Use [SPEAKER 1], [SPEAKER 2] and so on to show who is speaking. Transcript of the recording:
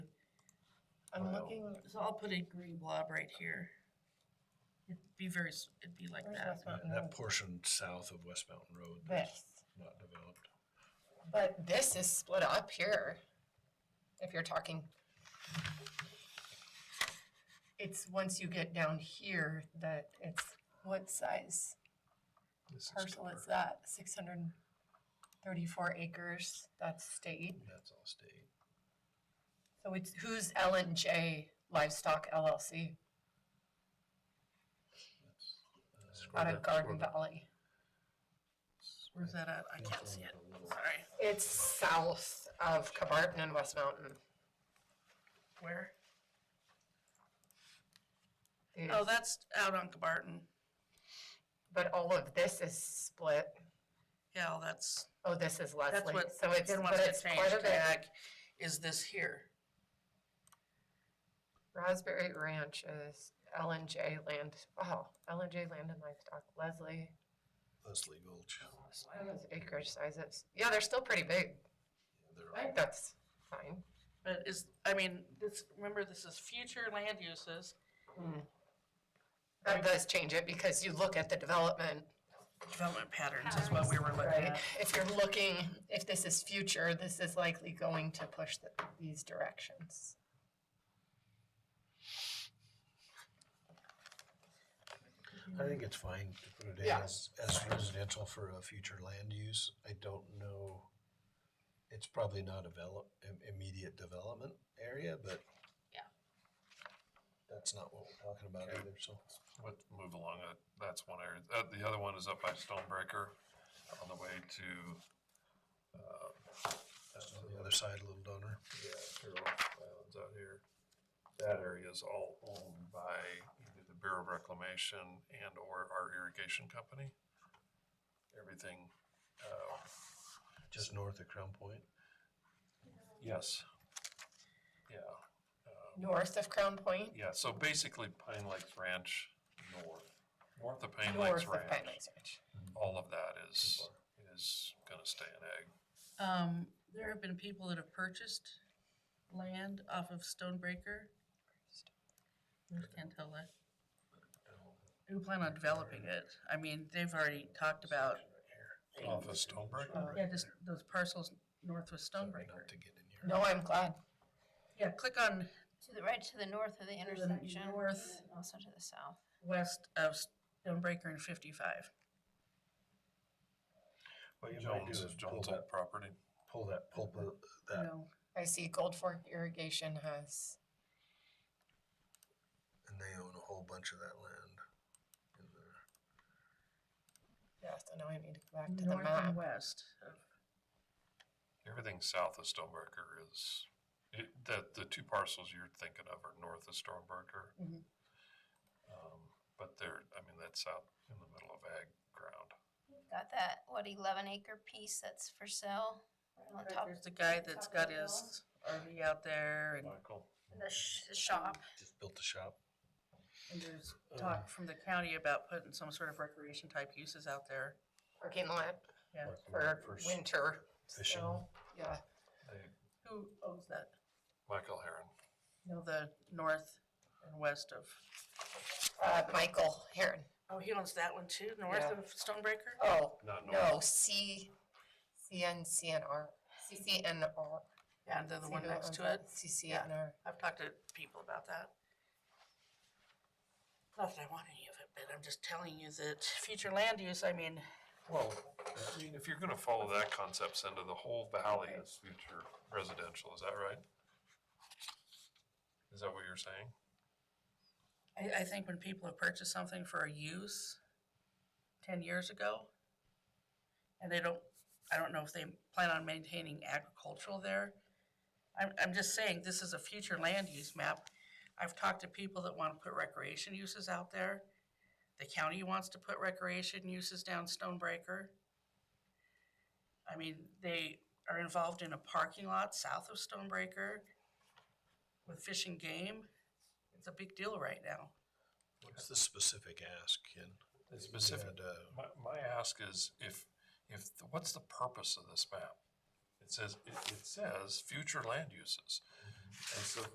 [SPEAKER 1] I'm
[SPEAKER 2] Wow.
[SPEAKER 1] looking,
[SPEAKER 3] So I'll put a green blob right here. It'd be very, s- it'd be like
[SPEAKER 1] where's
[SPEAKER 3] that.
[SPEAKER 1] West
[SPEAKER 2] That-
[SPEAKER 1] Mountain
[SPEAKER 2] Uh, That
[SPEAKER 1] Road?
[SPEAKER 2] portion south of West Mountain Road, that's
[SPEAKER 1] This,
[SPEAKER 2] not developed.
[SPEAKER 1] but this is split up here, if you're talking. It's once you get down here that it's, what size
[SPEAKER 2] This is
[SPEAKER 1] parcel is
[SPEAKER 2] per-
[SPEAKER 1] that? Six hundred and thirty-four acres, that's state.
[SPEAKER 2] That's all state.
[SPEAKER 1] So it's, who's L and J Livestock LLC
[SPEAKER 2] That's, uh,
[SPEAKER 1] out
[SPEAKER 2] Square-
[SPEAKER 1] of Garden
[SPEAKER 2] Square-
[SPEAKER 1] Valley?
[SPEAKER 3] Where's that at? I can't see it. Sorry.
[SPEAKER 1] It's south of Cabarton and West Mountain.
[SPEAKER 3] Where? Oh,
[SPEAKER 1] It's-
[SPEAKER 3] that's out on Cabarton.
[SPEAKER 1] But all of this is split.
[SPEAKER 3] Yeah, well, that's,
[SPEAKER 1] Oh, this is
[SPEAKER 3] that's
[SPEAKER 1] Leslie.
[SPEAKER 3] what,
[SPEAKER 1] So it's,
[SPEAKER 3] then
[SPEAKER 1] but
[SPEAKER 3] what's
[SPEAKER 1] it's
[SPEAKER 3] gonna
[SPEAKER 1] part
[SPEAKER 3] change
[SPEAKER 1] of it.
[SPEAKER 3] back is this here.
[SPEAKER 1] Raspberry Ranch is L and J land, oh, L and J land and livestock, Leslie.
[SPEAKER 2] Leslie Gulch.
[SPEAKER 1] What are those acreage sizes? Yeah, they're still pretty big.
[SPEAKER 2] They're
[SPEAKER 1] I
[SPEAKER 2] all-
[SPEAKER 1] think that's fine.
[SPEAKER 3] But is, I mean, this, remember, this is future land uses.
[SPEAKER 1] Hmm. That does change it because you look at the development,
[SPEAKER 3] Development patterns is what we were looking
[SPEAKER 1] right?
[SPEAKER 3] at.
[SPEAKER 1] If you're looking, if this is future, this is likely going to push the, these directions.
[SPEAKER 2] I think it's fine to put it in
[SPEAKER 1] Yeah.
[SPEAKER 2] as, as residential for a future land use. I don't know. It's probably not a develop, im- immediate development area, but.
[SPEAKER 3] Yeah.
[SPEAKER 2] That's not what we're talking about
[SPEAKER 4] Okay.
[SPEAKER 2] either, so.
[SPEAKER 4] Let's move along. That, that's one area. Uh, the other one is up by Stonebreaker on the way to, uh,
[SPEAKER 2] That's on the other side, a little donor.
[SPEAKER 4] yeah, Carroll Islands out here. That area is all owned by either the Bureau of Reclamation and or our irrigation company. Everything, uh,
[SPEAKER 2] just north of Crown Point.
[SPEAKER 4] yes. Yeah. uh,
[SPEAKER 1] North of Crown Point,
[SPEAKER 4] Yeah, so basically Pine Lakes Ranch north, north of Pine
[SPEAKER 1] north
[SPEAKER 4] Lakes
[SPEAKER 1] of Pine
[SPEAKER 4] Ranch,
[SPEAKER 1] Lakes Ranch.
[SPEAKER 4] all of that is, is gonna stay an egg.
[SPEAKER 3] Um, there have been people that have purchased land off of Stonebreaker. Can't tell that. Who plan on developing it? I mean, they've already talked about.
[SPEAKER 4] Off of Stonebreaker?
[SPEAKER 3] Yeah, just those parcels north of
[SPEAKER 2] Sorry,
[SPEAKER 3] Stonebreaker.
[SPEAKER 2] Not to get in here.
[SPEAKER 1] No, I'm glad.
[SPEAKER 3] Yeah, click on
[SPEAKER 5] To the right, to the north of the intersection.
[SPEAKER 3] north.
[SPEAKER 5] and Also to the south.
[SPEAKER 3] west of Stonebreaker and fifty-five.
[SPEAKER 2] What you might
[SPEAKER 4] Jones,
[SPEAKER 2] do is
[SPEAKER 4] is
[SPEAKER 2] pull
[SPEAKER 4] Jones
[SPEAKER 2] that,
[SPEAKER 4] owned property.
[SPEAKER 2] pull that, pull the- that,
[SPEAKER 3] No,
[SPEAKER 1] I see Gold Fork Irrigation has
[SPEAKER 2] and they own a whole bunch of that land in there.
[SPEAKER 1] Yeah, so now I need to go back to the
[SPEAKER 3] north
[SPEAKER 1] map.
[SPEAKER 3] and west of
[SPEAKER 4] Everything south of Stonebreaker is, it, the, the two parcels you're thinking of are north of Stonebreaker.
[SPEAKER 3] Mhm.
[SPEAKER 4] Um, But they're, I mean, that's out in the middle of ag ground.
[SPEAKER 5] Got that, what, eleven acre piece that's for sale? Right on the top.
[SPEAKER 3] There's the guy that's got his RV out there and,
[SPEAKER 4] Michael?
[SPEAKER 5] The sh- the shop.
[SPEAKER 2] Just built the shop.
[SPEAKER 3] and there's talk from the county about putting some sort of recreation type uses out there.
[SPEAKER 1] Parking lot
[SPEAKER 3] Yeah.
[SPEAKER 2] Like we
[SPEAKER 1] for
[SPEAKER 2] went first.
[SPEAKER 1] winter.
[SPEAKER 2] fishing.
[SPEAKER 1] so, Yeah,
[SPEAKER 4] They-
[SPEAKER 3] Who owns that?
[SPEAKER 4] Michael Heron.
[SPEAKER 3] You know, the north and west of.
[SPEAKER 1] uh, Michael Heron.
[SPEAKER 3] Oh, he owns that one too,
[SPEAKER 1] Yeah.
[SPEAKER 3] Stonebreaker?
[SPEAKER 1] Oh,
[SPEAKER 4] Not
[SPEAKER 1] no,
[SPEAKER 4] north.
[SPEAKER 1] C, CNCNR, CCNR.
[SPEAKER 3] Yeah, and then the one
[SPEAKER 1] See,
[SPEAKER 3] next
[SPEAKER 1] um,
[SPEAKER 3] to it.
[SPEAKER 1] CCNR.
[SPEAKER 3] I've talked to people about that. Not that I want any of it, but I'm just telling you that future land use, I mean,
[SPEAKER 4] Well, I mean, if you're gonna follow that concept, Cinda, the whole valley is future residential, is that right? Is that what you're saying?
[SPEAKER 3] I, I think when people have purchased something for a use ten years ago, and they don't, I don't know if they plan on maintaining agricultural there. I'm, I'm just saying, this is a future land use map. I've talked to people that want to put recreation uses out there. The county wants to put recreation uses down Stonebreaker. I mean, they are involved in a parking lot south of Stonebreaker with fishing game. It's a big deal right now.
[SPEAKER 2] What's the specific ask, Ken?
[SPEAKER 4] The specific-
[SPEAKER 2] And, uh,
[SPEAKER 4] My, my ask is if, if, what's the purpose of this map? It says, it, it says future land uses. And so if